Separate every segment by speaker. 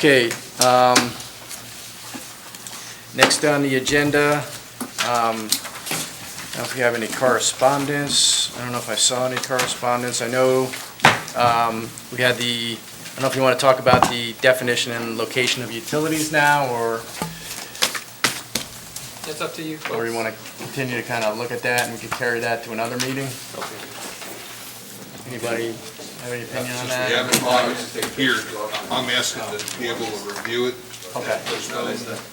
Speaker 1: Okay, um, next on the agenda, um, I don't know if we have any correspondence. I don't know if I saw any correspondence. I know, um, we had the, I don't know if you want to talk about the definition and location of utilities now, or,
Speaker 2: It's up to you folks.
Speaker 1: or you want to continue to kind of look at that and we could carry that to another meeting? Anybody have any opinion on
Speaker 3: Since we
Speaker 1: that?
Speaker 3: have it on here, I'm asking to be able to review it.
Speaker 1: Okay,
Speaker 3: There's no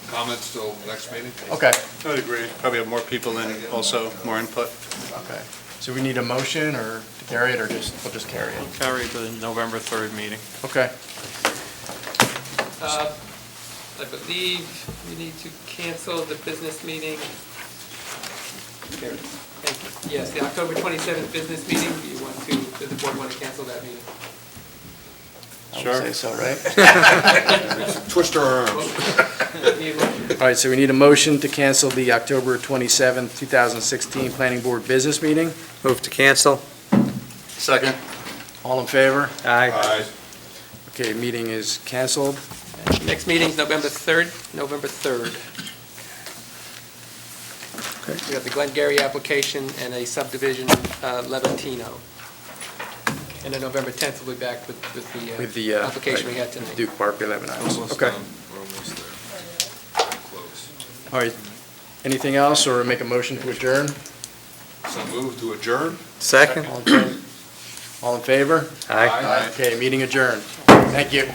Speaker 3: comments till next meeting?
Speaker 1: okay,
Speaker 4: I would agree. Probably have more people in, also more input.
Speaker 1: okay. So we need a motion or to carry it, or just, we'll just carry it?
Speaker 4: Carry the November 3rd meeting.
Speaker 1: Okay.
Speaker 2: Uh, I believe we need to cancel the business meeting. Thank you. Yes, the October 27th business meeting, do you want to, does the board want to cancel that meeting?
Speaker 1: I
Speaker 4: Sure.
Speaker 1: would say so, right?
Speaker 3: Twist our arm.
Speaker 2: Vote. Need a motion?
Speaker 1: All right, so we need a motion to cancel the October 27th, 2016 Planning Board Business Meeting.
Speaker 5: Move to cancel.
Speaker 4: Second.
Speaker 1: All in favor?
Speaker 5: Aye.
Speaker 3: Aye.
Speaker 1: Okay, meeting is canceled.
Speaker 2: Next meeting's November 3rd, November 3rd.
Speaker 5: Okay.
Speaker 2: We got the Glengarry application and a subdivision, uh, Levantino. And then November 10th, we'll be back with with
Speaker 1: With
Speaker 2: the
Speaker 1: the,
Speaker 2: uh,
Speaker 1: uh,
Speaker 2: application we had tonight.
Speaker 1: Duke Park, 11 items. Okay.
Speaker 3: We're almost there. Close.
Speaker 1: All right, anything else, or make a motion to adjourn?
Speaker 3: So move to adjourn?
Speaker 5: Second?
Speaker 1: All in favor?
Speaker 5: Aye.
Speaker 1: Okay, meeting adjourned. Thank you.